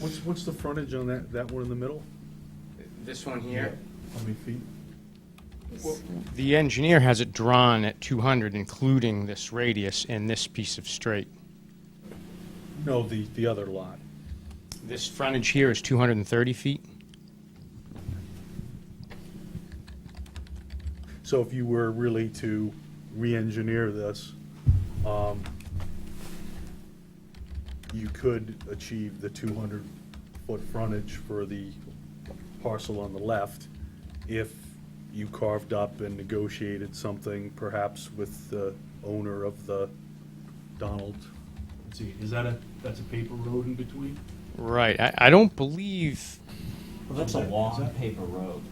What's, what's the frontage on that, that one in the middle? This one here? How many feet? The engineer has it drawn at 200, including this radius and this piece of straight. No, the, the other lot. This frontage here is 230 feet? So if you were really to re-engineer this, um, you could achieve the two hundred foot frontage for the parcel on the left if you carved up and negotiated something perhaps with the owner of the Donald. Let's see, is that a, that's a paper road in between? Right, I, I don't believe, Well, that's a Is that- long is that- paper road.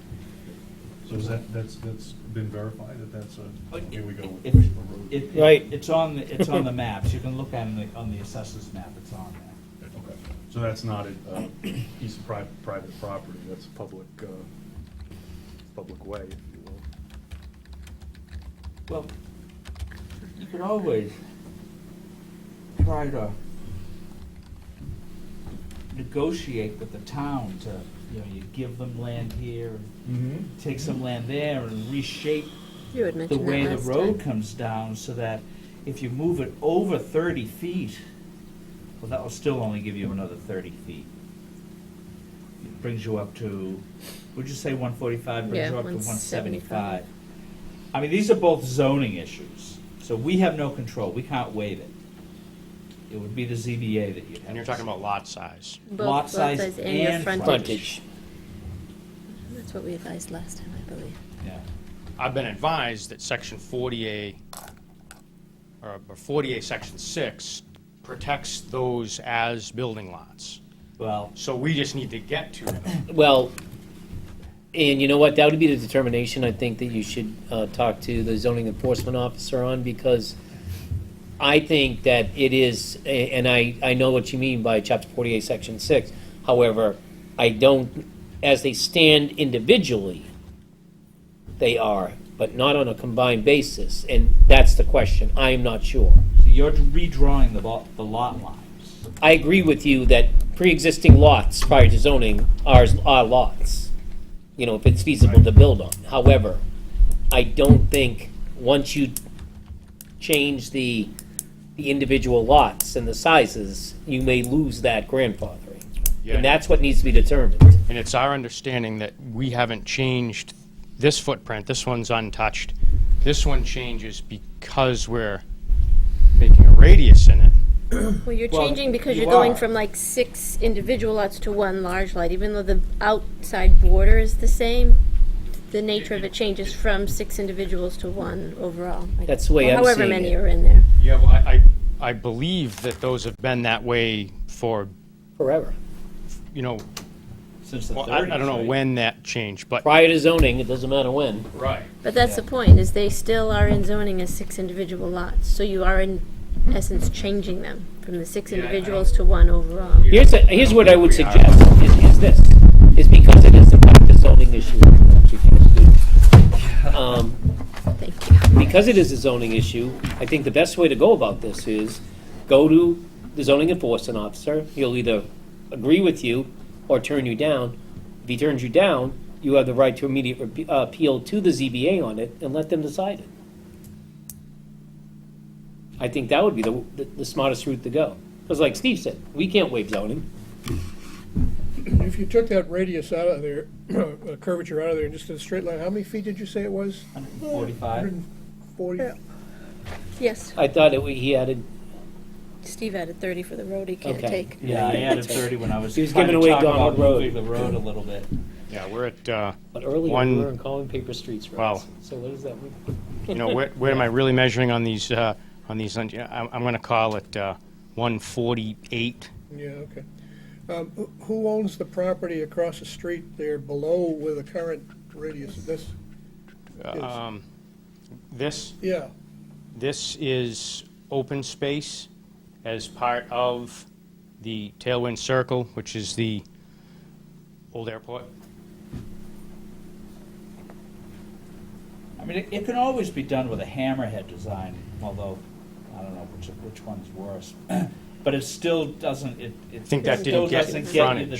So is that, that's, that's been verified that that's a, here we go. If- paper road. Oh, It- it- Right. It's on, the it's on the maps, you can look at it on the assessors map, it's on there. Okay, so that's not a uh, piece of private, private property, that's a public, uh, public way, if you will. Well, you can always try to negotiate with the town to, you know, you give them land here, and Mm-hmm. take some land there and reshape You had the mentioned way that the last road time. comes down so that if you move it over thirty feet, well, that will still only give you another thirty feet. It Brings you up to, would you say one forty-five, brings Yeah, you up to one 175. seventy-five? I mean, these are both zoning issues, so we have no control, we can't waive it. It would be the ZBA that you'd have. and you're to talking say. about lot size. Both lot size your and frontage. That's what we advised last time, I believe. Yeah. I've been advised that section 40A, or 40A, section 6, protects those as building lots. Well, So we just need to get to them. Well, and you know what, that would be the determination I think that you should uh, talk to the zoning enforcement officer on, because I think that it is, a- and I, I know what you mean by chapter forty-eight, section six. However, I don't, as they stand individually, they are, but not on a combined basis, and that's the question, I am not sure. so you're redrawing the lot, the lot lines. I agree with you that pre-existing lots prior to zoning are, are lots, you know, if it's feasible to build on. However, I don't think, once you change the, the individual lots and the sizes, you may lose that grandfathering. Yeah. And that's what needs to be determined. And it's our understanding that we haven't changed this footprint, this one's untouched. This one changes because we're making a radius in it. Well, you're Well, changing because you you're going are. from like six individual lots to one large lot, even though the outside border is the same. The nature of it changes from six individuals to one overall. I That's the way guess. I'm However seeing many it. are in there. Yeah, well, I, I, I believe that those have been that way for, Forever. you know, Since the well, thirties, I, I don't know right? when that changed, but. Prior to zoning, it doesn't matter when. Right. But that's the point, is they still are in zoning as six individual lots, so you are in essence changing them from the six Yeah, I- I individuals to one overall. Here's, a- here's what I would Yeah. suggest, is, is this, is because it is in fact a zoning issue. Um, Thank you. because it is a zoning issue, I think the best way to go about this is go to the zoning enforcement officer. He'll either agree with you or turn you down. If he turns you down, you have the right to immediate rep- uh, appeal to the ZBA on it and let them decide it. I think that would be the, the smartest route to go. Because like Steve said, we can't waive zoning. If you took that radius out of there, uh, curvature out of there, and just did a straight line, how many feet did you say it was? 145. 140? Yes, I thought that we- he added, Steve added thirty for the road he can't Okay. take. Yeah, I added thirty when I was He was trying to giving away talk Donald about Road. moving the road a little bit. Yeah, we're at, uh, but earlier we One- were calling paper streets Wow. roads. So what does that mean? you know, where, where am I really measuring on these, uh, on these, un- you know, I'm, I'm gonna call it, uh, one forty-eight. Yeah, okay. Um, who- Who owns the property across the street there below where the current radius of this is? Um, this, Yeah, this is open space as part of the Tailwind Circle, which is the old airport. I mean, it, it can always be done with a hammerhead design, although I don't know which which one's worse. but it still doesn't, it, it think that still didn't get doesn't get you frontage. the